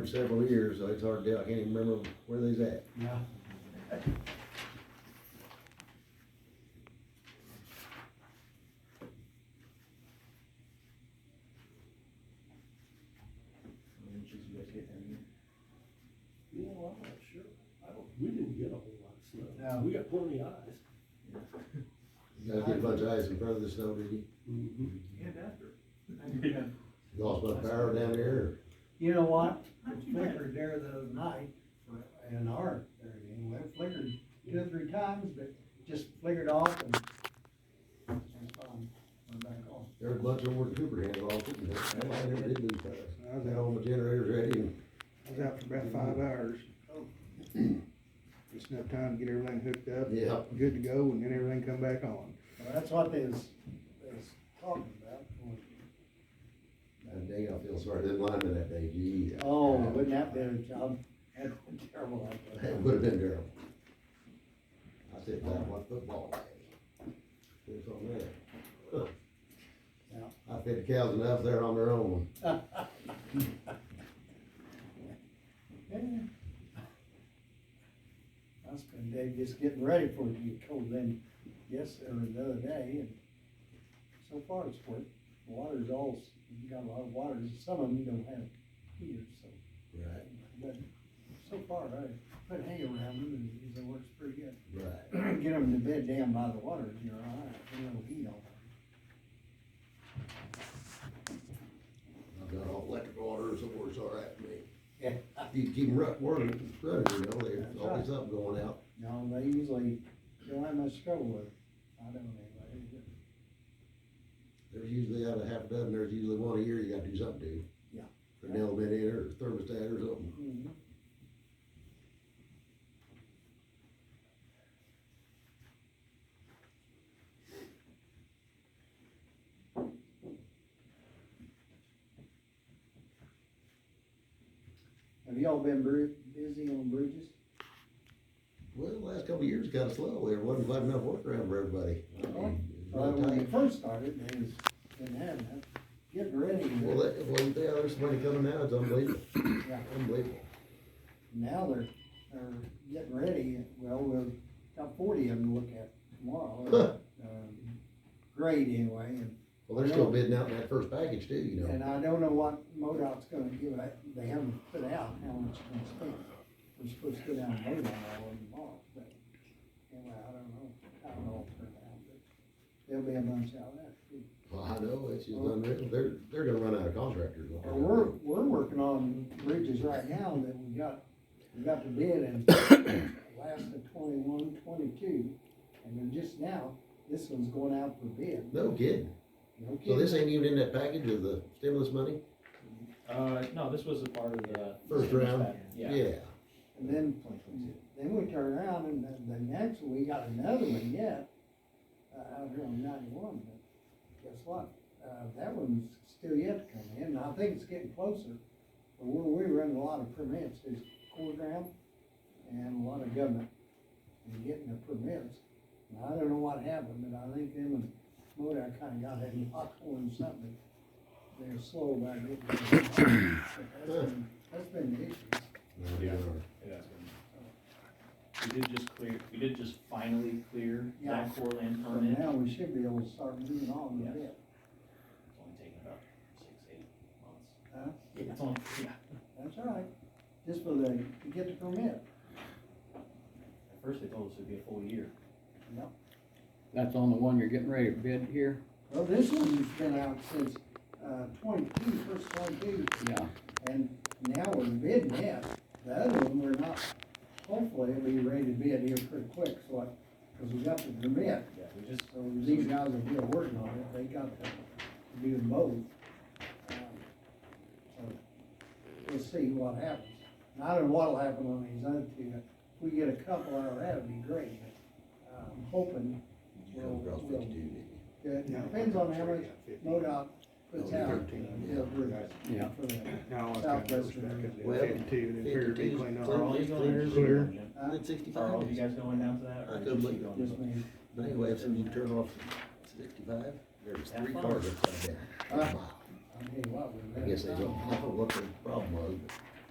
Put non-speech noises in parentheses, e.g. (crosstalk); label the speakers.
Speaker 1: for several years, so it's hard to, I can't even remember where they's at.
Speaker 2: Yeah. Yeah, well, I'm not sure. I don't, we didn't get a whole lot of snow.
Speaker 3: No.
Speaker 2: We got plenty of ice.
Speaker 1: You gotta get a bunch of ice in front of the snow, did you?
Speaker 2: Mhm.
Speaker 3: And after.
Speaker 1: You Lost my power down there,
Speaker 3: You know what?
Speaker 4: Not
Speaker 3: It
Speaker 4: too bad.
Speaker 3: flickered there the other night, for an hour, there anyway, It flickered two or three times, but just flickered off and. and um, Went back on.
Speaker 1: there was a bunch over at Cooper had lost it, and I never did lose power. I had all my generators ready, and
Speaker 5: I was out for about five hours. Just enough time to get everything hooked up.
Speaker 1: Yeah.
Speaker 5: Good to go, and then everything come back on.
Speaker 3: Well, that's what they was, they was talking about.
Speaker 1: that day I feel sorry, that lineman that day, gee.
Speaker 3: Oh, wouldn't that be a job? (laughs) That's terrible.
Speaker 1: (laughs) That would've been terrible. I said, that was football day. It's on there.
Speaker 3: (laughs) Yeah.
Speaker 1: I fed the cows enough there on their own.
Speaker 3: Yeah. I spent day just getting ready for it to get cold then, yes, or the other day, and so far it's worked. The Water's all, you got a lot of waters, some of them you don't have heaters, so,
Speaker 1: Right,
Speaker 3: but so far, I put hay around them and it works pretty good. (clears throat)
Speaker 1: right.
Speaker 3: Get them to bed down by the water, if you're all right, you know, heat on.
Speaker 1: I've got all electric water, so it's all right for me.
Speaker 3: Yeah.
Speaker 1: You keep them rut, running, running, you know, there's
Speaker 3: That's
Speaker 1: always something going out.
Speaker 3: No, they usually don't have much trouble with it. I don't anyway.
Speaker 1: There's usually out of half a dozen, there's usually one a year you gotta do something to.
Speaker 3: Yeah.
Speaker 1: An elevator, or thermostat or something.
Speaker 3: Mhm. Have y'all been bru- busy on bridges?
Speaker 1: Well, the last couple of years kinda slow, there wasn't quite enough work around for everybody. I mean, it's
Speaker 3: Uh-huh. Well,
Speaker 1: really
Speaker 3: when they
Speaker 1: tight.
Speaker 3: first started, they was, didn't have that. Get ready.
Speaker 1: Well, that, well, yeah, there's somebody coming now, it's unbelievable,
Speaker 3: (coughs) Yeah.
Speaker 1: unbelievable.
Speaker 3: Now they're, they're getting ready, well, we've got forty of them to look at
Speaker 1: (laughs)
Speaker 3: tomorrow, um, grade anyway, and,
Speaker 1: Well, they're still bidding out that first package too, you
Speaker 3: and
Speaker 1: know.
Speaker 3: I don't know what MoDOT's gonna give, out. they haven't put out how much it's gonna spend. We're supposed to go down and MoDOT all of tomorrow, but, anyway, I don't know, I don't know if they're out, but there'll be a bunch out there. too.
Speaker 1: Well, I know, it's just unreal, they're, they're gonna run out of contractors.
Speaker 3: Well, Oh. we're, we're working on bridges right now that we got, we got to bid in last of twenty-one, twenty-two. And then just now, this one's going out for bid.
Speaker 1: No kidding.
Speaker 3: No
Speaker 1: So this
Speaker 3: kidding.
Speaker 1: ain't even in that package of the stimulus money?
Speaker 4: Uh, no, this was a part of the.
Speaker 1: First round?
Speaker 4: Yeah.
Speaker 3: And then, Mm. then we turn around and the, the next, we got another one yet, uh, out here on ninety-one, but guess what? Uh, that one's still yet to come in, and I think it's getting closer. But we're, we run a lot of permits, there's core ground and a lot of government, and getting the permits. And I don't know what happened, but I think them and MoDOT kinda got that (laughs) locked on something. They're slow about getting. it. But That's been, that's been the issue.
Speaker 4: Yeah. We did just clear, we did just finally clear
Speaker 3: Yeah.
Speaker 4: that core land
Speaker 3: So
Speaker 4: permit. It's
Speaker 3: now we should be able to start moving on a bit.
Speaker 4: only taken about six, eight months.
Speaker 3: Huh?
Speaker 4: It's only, yeah,
Speaker 3: That's all right, just for the, to get the permit.
Speaker 4: at first they told us it'd be a full year.
Speaker 6: That's on the one you're getting ready to bid here?
Speaker 3: Well, this one's been out since, uh, twenty-two, first twenty-two,
Speaker 6: Yeah.
Speaker 3: and now we're bidding it. The other one, we're not, hopefully it'll be ready to bid here pretty quick, so I, cause we got the permit.
Speaker 4: Yeah, we just,
Speaker 3: So these guys are here working on it, they got to do them both. Um, so We'll see what happens. And I don't know what'll happen on these other two, if we get a couple out of that, it'd be great, but uh, I'm hoping,
Speaker 1: Come across fifty-two, didn't you?
Speaker 3: it depends on how much MoDOT puts out. uh, for-
Speaker 6: Yeah.
Speaker 3: for the-
Speaker 5: No, I got
Speaker 3: Southwest
Speaker 5: back up to
Speaker 1: Well,
Speaker 5: fifty-two, and then figured it'd be
Speaker 1: 52 's
Speaker 5: clean
Speaker 4: are
Speaker 5: up.
Speaker 4: all you going
Speaker 1: Clear.
Speaker 4: down to that, Jim?
Speaker 3: Huh?
Speaker 1: It's
Speaker 4: Are all
Speaker 1: sixty-five.
Speaker 4: you guys going down to that?
Speaker 1: I
Speaker 4: or just
Speaker 1: couldn't
Speaker 4: you
Speaker 1: believe it.
Speaker 4: going?
Speaker 3: Yes, ma'am.
Speaker 1: But anyway, so you turn off sixty-five, there's three cars upside down.
Speaker 4: Uh,
Speaker 3: I tell you what, we're.
Speaker 1: I guess they don't know what the problem was, but